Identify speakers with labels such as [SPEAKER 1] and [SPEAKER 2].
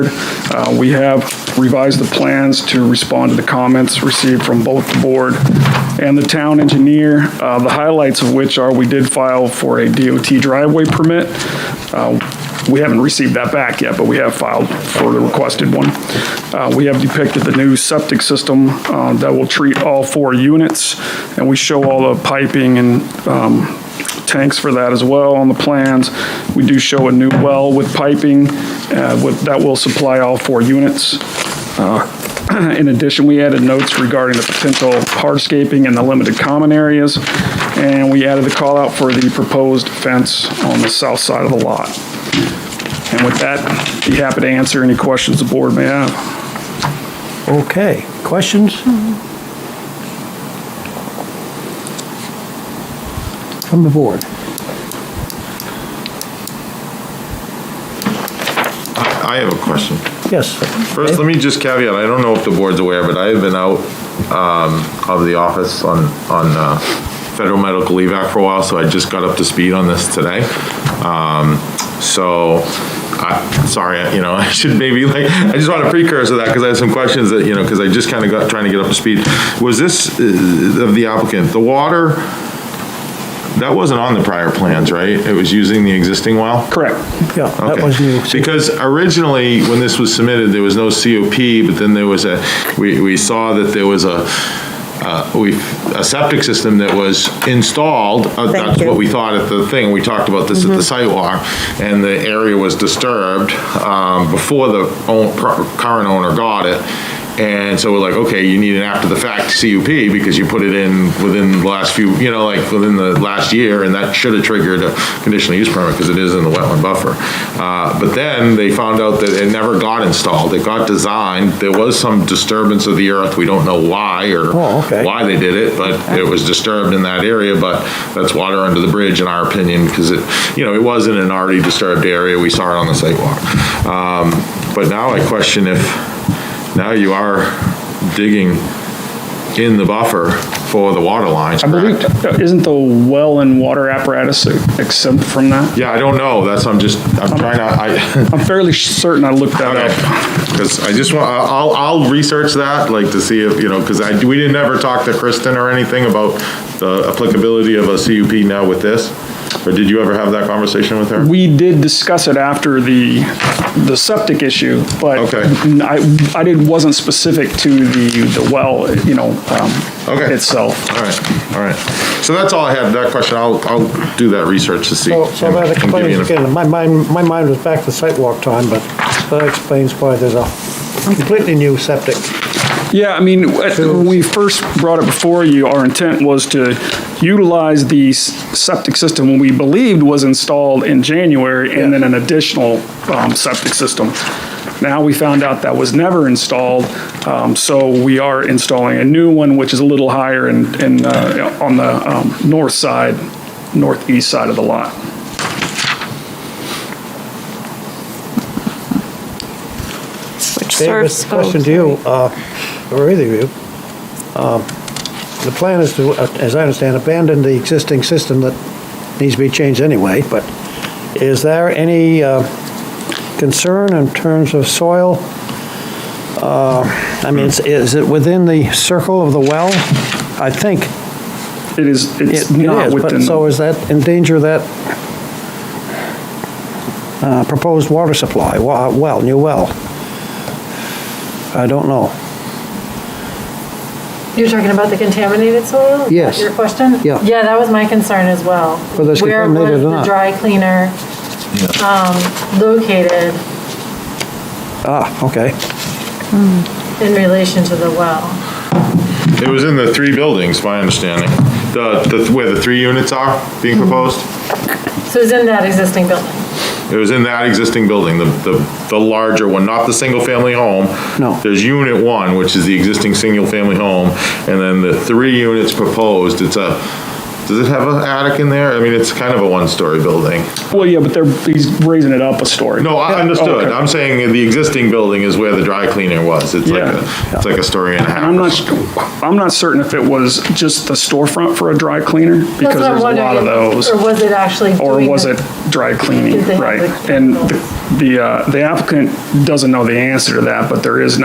[SPEAKER 1] Uh, We have revised the plans to respond to the comments received from both the board and the town engineer, uh, the highlights of which are we did file for a DOT driveway permit. Uh, We haven't received that back yet, but we have filed for the requested one. Uh, We have depicted the new septic system uh, that will treat all four units, and we show all the piping and um, tanks for that as well on the plans. We do show a new well with piping uh, with- that will supply all four units. Uh, In addition, we added notes regarding the potential hardscaping in the limited common areas, and we added the call out for the proposed fence on the south side of the lot. And with that, be happy to answer any questions the board may have.
[SPEAKER 2] Okay, questions? From the board?
[SPEAKER 3] I have a question.
[SPEAKER 2] Yes.
[SPEAKER 3] First, let me just caveat, I don't know if the board's aware, but I have been out um, of the office on, on uh, federal medical leave act for a while, so I just got up to speed on this today. Um, So, I, sorry, you know, I should maybe like, I just want a precursor to that because I have some questions that, you know, because I just kind of got, trying to get up to speed. Was this, uh, of the applicant, the water, that wasn't on the prior plans, right? It was using the existing well?
[SPEAKER 1] Correct.
[SPEAKER 2] Yeah, that
[SPEAKER 3] Okay.
[SPEAKER 2] was new.
[SPEAKER 3] Because originally, when this was submitted, there was no COP, but then there was a, we, we saw that there was a, uh, we, a septic system that was installed. uh, That's
[SPEAKER 4] you.
[SPEAKER 3] what we thought at the thing, we talked about this at
[SPEAKER 2] Mm-hmm.
[SPEAKER 3] the sidewalk, and the area was disturbed um, before the own- pro- current owner got it. And so we're like, okay, you need an after-the-fact CUP because you put it in within the last few, you know, like, within the last year, and that should have triggered a conditional use permit because it is in the wetland buffer. Uh, But then they found out that it never got installed. It got designed. There was some disturbance of the earth. We don't know why or
[SPEAKER 2] Oh, okay.
[SPEAKER 3] why they did it, but it was disturbed in that area, but that's water under the bridge in our opinion, because it, you know, it wasn't an already disturbed area. We saw it on the sidewalk. Um, But now I question if, now you are digging in the buffer for the water lines,
[SPEAKER 1] I believe,
[SPEAKER 3] correct?
[SPEAKER 1] isn't the well and water apparatus exempt from that?
[SPEAKER 3] Yeah, I don't know. That's, I'm just, I'm trying to, I,
[SPEAKER 1] I'm fairly certain I looked that up.
[SPEAKER 3] Because I just want, I'll, I'll research that, like, to see if, you know, because I, we didn't ever talk to Kristen or anything about the applicability of a CUP now with this, or did you ever have that conversation with her?
[SPEAKER 1] We did discuss it after the, the septic issue, but
[SPEAKER 3] Okay.
[SPEAKER 1] I, I didn't, wasn't specific to the, the well, you know, um,
[SPEAKER 3] Okay.
[SPEAKER 1] itself.
[SPEAKER 3] All right, all right. So that's all I had, that question, I'll, I'll do that research to see.
[SPEAKER 2] So so that
[SPEAKER 3] and give you
[SPEAKER 2] explains,
[SPEAKER 3] an-
[SPEAKER 2] again, my mind, my mind was back to sidewalk time, but that explains why there's a completely new septic.
[SPEAKER 1] Yeah, I mean, at- when we first brought it before you, our intent was to utilize the s- septic system we believed was installed in January and then an additional um, septic system. Now we found out that was never installed, um, so we are installing a new one, which is a little higher and, and uh, on the um, north side, northeast side of the lot.
[SPEAKER 4] which
[SPEAKER 2] David,
[SPEAKER 4] serves. oh,
[SPEAKER 2] question to you, uh, or either of you. Um, The plan is to, uh, as I understand, abandon the existing system that needs to be changed anyway, but is there any uh, concern in terms of soil? Uh, I mean, is- is it within the circle of the well? I think
[SPEAKER 1] It is,
[SPEAKER 2] it
[SPEAKER 1] it's
[SPEAKER 2] it
[SPEAKER 1] not
[SPEAKER 2] is, but
[SPEAKER 1] within,
[SPEAKER 2] so is that endanger that uh, proposed water supply, wa- well, new well? I don't know.
[SPEAKER 5] You're talking about the contaminated soil? Is
[SPEAKER 2] Yes.
[SPEAKER 5] that Your question?
[SPEAKER 2] Yeah.
[SPEAKER 5] Yeah, that was my concern as well.
[SPEAKER 2] Whether it's contaminated or
[SPEAKER 5] Where was
[SPEAKER 2] not.
[SPEAKER 5] the dry cleaner um, located
[SPEAKER 2] Ah, okay.
[SPEAKER 5] in relation to the well?
[SPEAKER 3] It was in the three buildings, my understanding, the, the, where the three units are being proposed.
[SPEAKER 5] So it's in that existing building?
[SPEAKER 3] It was in that existing building, the, the, the larger one, not the single-family home.
[SPEAKER 2] No.
[SPEAKER 3] There's unit one, which is the existing single-family home, and then the three units proposed, it's a, Does it have an attic in there? I mean, it's kind of a one-story building.
[SPEAKER 1] Well, yeah, but they're, he's raising it up a story.
[SPEAKER 3] No, I
[SPEAKER 1] Oh,
[SPEAKER 3] understood.
[SPEAKER 1] okay.
[SPEAKER 3] I'm saying the existing building is where the dry cleaner was. It's like,
[SPEAKER 1] Yeah.
[SPEAKER 3] a it's like a story and a half.
[SPEAKER 1] And I'm not, I'm not certain if it was just the storefront for a dry cleaner, because
[SPEAKER 5] That's what I'm
[SPEAKER 1] there's a lot of
[SPEAKER 5] wondering,
[SPEAKER 1] those.
[SPEAKER 5] Or was it actually
[SPEAKER 1] Or
[SPEAKER 5] doing
[SPEAKER 1] was
[SPEAKER 5] the-
[SPEAKER 1] it dry cleaning,
[SPEAKER 5] Did they have
[SPEAKER 1] right?
[SPEAKER 5] the-
[SPEAKER 1] And the- the, uh, the applicant doesn't know the answer to that, but there is